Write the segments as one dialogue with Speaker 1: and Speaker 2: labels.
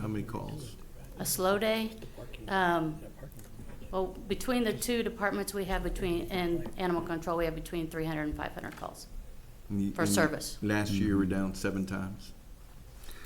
Speaker 1: How many calls?
Speaker 2: a slow day. Um, Well, between the two departments we have between, and animal control, we have between 300 and 500 calls for service,
Speaker 1: Last year, we're down seven times.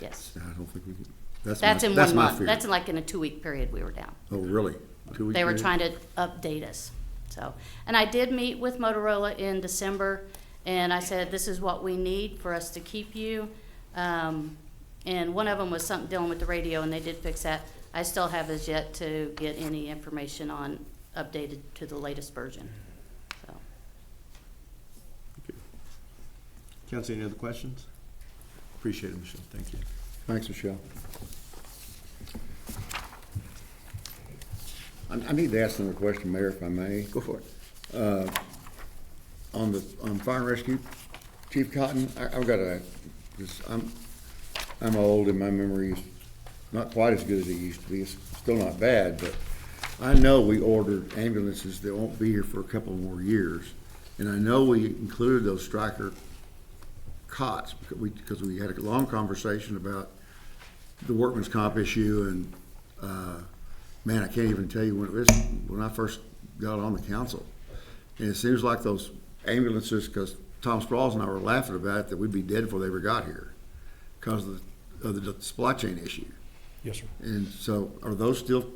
Speaker 2: yes.
Speaker 3: I don't think we can, that's my,
Speaker 2: That's in
Speaker 3: that's
Speaker 2: one
Speaker 3: my
Speaker 2: month,
Speaker 3: fear.
Speaker 2: that's in like in a two-week period we were down.
Speaker 3: Oh, really? Two-week
Speaker 2: They were
Speaker 3: period?
Speaker 2: trying to update us, so. And I did meet with Motorola in December, and I said, this is what we need for us to keep you. Um, And one of them was something dealing with the radio, and they did fix that. I still have as yet to get any information on, updated to the latest version, so.
Speaker 1: Council, any other questions? Appreciate it, Michelle, thank you.
Speaker 3: Thanks, Michelle. I, I need to ask another question, Mayor, if I may. Uh,
Speaker 1: Go for it.
Speaker 3: On the, on fire and rescue, Chief Cotton, I, I've got a, this, I'm, I'm old and my memory is not quite as good as it used to be. It's still not bad, but I know we ordered ambulances that won't be here for a couple more years. And I know we included those striker cots, because we, because we had a long conversation about the workman's comp issue and, uh, man, I can't even tell you when it was, when I first got on the council. And it seems like those ambulances, because Tom Sprouls and I were laughing about it, that we'd be dead before they ever got here because of the, of the supply chain issue.
Speaker 4: Yes, sir.
Speaker 3: And so are those still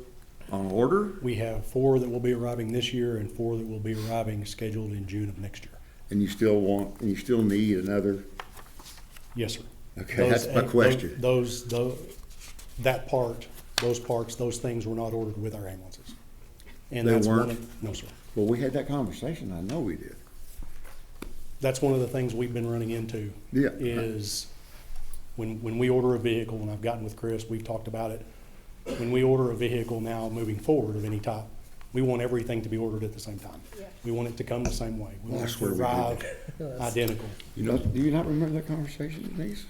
Speaker 3: on order?
Speaker 4: We have four that will be arriving this year and four that will be arriving scheduled in June of next year.
Speaker 3: And you still want, and you still need another?
Speaker 4: Yes, sir.
Speaker 3: Okay,
Speaker 4: Those-
Speaker 3: that's my question.
Speaker 4: Those, those, that part, those parts, those things were not ordered with our ambulances. And
Speaker 3: They
Speaker 4: that's one
Speaker 3: weren't?
Speaker 4: of- No, sir.
Speaker 3: Well, we had that conversation. I know we did.
Speaker 4: That's one of the things we've been running into.
Speaker 3: Yeah.
Speaker 4: Is when, when we order a vehicle, and I've gotten with Chris, we've talked about it. When we order a vehicle now moving forward of any type, we want everything to be ordered at the same time. We want it to come the same way. We want
Speaker 3: That's
Speaker 4: it to
Speaker 3: where we did
Speaker 4: arrive identical.
Speaker 3: You know, do you not remember that conversation, Denise?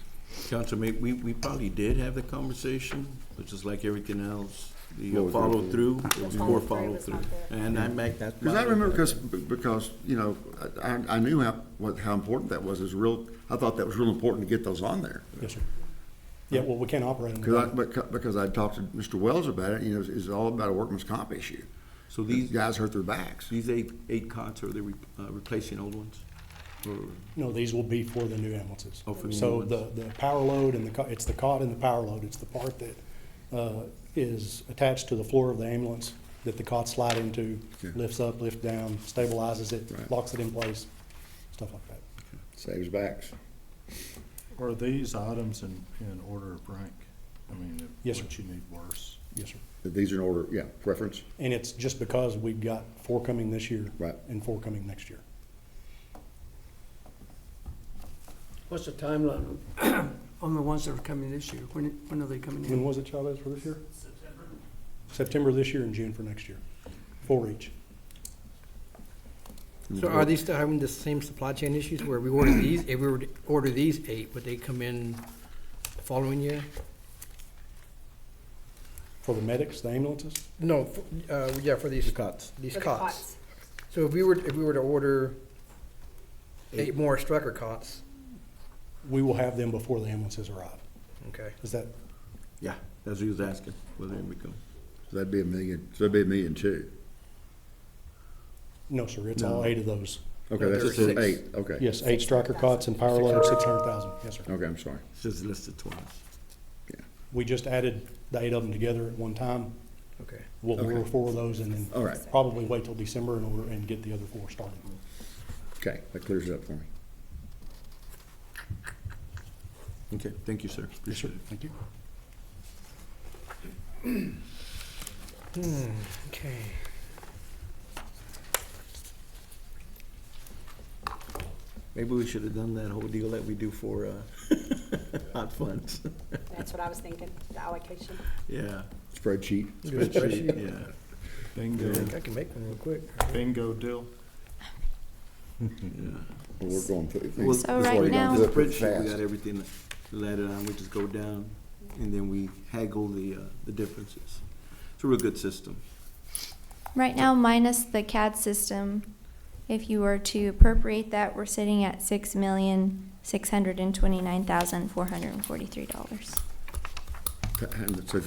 Speaker 1: Council, may, we, we probably did have the conversation, but just like everything else,
Speaker 3: What
Speaker 1: the
Speaker 3: was that?
Speaker 1: follow-through, it was poor follow-through.
Speaker 5: not
Speaker 1: And I make that.
Speaker 3: Because I remember, because, because, you know, I, I knew how, what, how important that was. It's real, I thought that was real important to get those on there.
Speaker 4: Yes, sir. Yeah, well, we can't operate them.
Speaker 3: Because I,
Speaker 4: without-
Speaker 3: becau- because I talked to Mr. Wells about it, you know, it's, it's all about a workman's comp issue.
Speaker 1: So
Speaker 3: These
Speaker 1: these,
Speaker 3: guys hurt their backs.
Speaker 1: these eight, eight cots, are they re- uh, replacing old ones? Or-
Speaker 4: No, these will be for the new ambulances.
Speaker 1: Oh, for the new
Speaker 4: So
Speaker 1: ones.
Speaker 4: the, the power load and the, co- it's the cot and the power load. It's the part that uh, is attached to the floor of the ambulance that the cot slide into,
Speaker 3: Yeah.
Speaker 4: lifts up, lifts down, stabilizes
Speaker 3: Right.
Speaker 4: it, locks it in place, stuff like that.
Speaker 3: Saves backs.
Speaker 6: Are these items in, in order of rank? I mean, if
Speaker 4: Yes, sir.
Speaker 6: what you need worse.
Speaker 4: Yes, sir.
Speaker 3: These are in order, yeah, preference.
Speaker 4: And it's just because we've got four coming this year.
Speaker 3: Right.
Speaker 4: And four coming next year.
Speaker 7: What's the timeline on the ones that are coming this year? When, when are they coming
Speaker 4: When
Speaker 7: in?
Speaker 4: was it, Chavez, for this year? September this year and June for next year, four each.
Speaker 5: So are they still having the same supply chain issues where we order these, if we were to order these eight, would they come in the following year?
Speaker 4: For the medics, the ambulances,
Speaker 5: No, f- uh, yeah, for these. Cots. These cots. So if we were, if we were to order eight more Strucker cots,
Speaker 4: we will have them before the ambulances arrive.
Speaker 5: okay.
Speaker 4: Is that,
Speaker 1: Yeah, that's what he was asking, whether it would come.
Speaker 3: So that'd be a million, so that'd be a million two.
Speaker 4: no, sir, it's all eight of those.
Speaker 3: Okay, that's
Speaker 1: Six.
Speaker 3: eight, okay.
Speaker 4: Yes, eight striker cots and power load, six hundred thousand, yes, sir.
Speaker 3: Okay, I'm sorry.
Speaker 1: It's just listed twice.
Speaker 4: We just added the eight of them together at one time.
Speaker 5: Okay.
Speaker 4: We'll order
Speaker 3: Okay.
Speaker 4: four of those and then.
Speaker 3: All right.
Speaker 4: Probably wait till December and order and get the other four started.
Speaker 3: Okay, that clears it up for me.
Speaker 1: Okay, thank you, sir.
Speaker 4: Yes, sir,
Speaker 1: Appreciate it.
Speaker 4: thank you.
Speaker 5: Hmm, Okay.
Speaker 1: Maybe we should have done that whole deal that we do for, uh, hot funds.
Speaker 8: That's what I was thinking, the allocation.
Speaker 1: Yeah.
Speaker 3: Spreadsheet.
Speaker 1: Spreadsheet, yeah.
Speaker 6: Bingo,
Speaker 5: I think I can make one real quick.
Speaker 6: bingo deal.
Speaker 3: Well, We're going through.
Speaker 1: Well,
Speaker 3: This
Speaker 1: So
Speaker 3: way
Speaker 1: right
Speaker 3: we're gonna
Speaker 1: The
Speaker 3: do it pretty
Speaker 1: spreadsheet, we
Speaker 3: fast.
Speaker 1: got everything laddered on, we just go down, and then we haggle the, uh, the differences. It's a real good system.
Speaker 9: Right now, minus the CAD system, if you were to appropriate that, we're sitting at six million, six hundred and twenty-nine thousand, four hundred and forty-three dollars.
Speaker 3: Okay. and so